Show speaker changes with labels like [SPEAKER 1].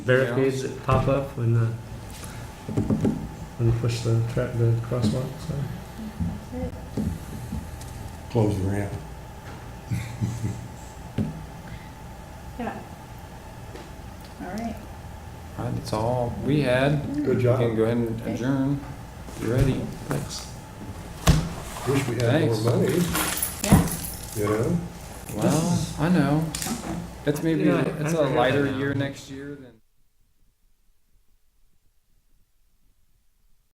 [SPEAKER 1] barricades that pop up when the when you push the tra- the crosswalk. So.
[SPEAKER 2] close the ramp.
[SPEAKER 3] Yeah. All right.
[SPEAKER 4] All right, That's all we had.
[SPEAKER 2] Good
[SPEAKER 4] We can
[SPEAKER 2] job.
[SPEAKER 4] go ahead and adjourn. You ready? Thanks.
[SPEAKER 2] Wish we had more
[SPEAKER 4] Thanks.
[SPEAKER 2] money,
[SPEAKER 3] Yeah.
[SPEAKER 2] you know?
[SPEAKER 4] Well, I know. It's maybe,
[SPEAKER 1] Yeah, I
[SPEAKER 4] it's a
[SPEAKER 1] forgot
[SPEAKER 4] lighter
[SPEAKER 1] that now.
[SPEAKER 4] year next year than.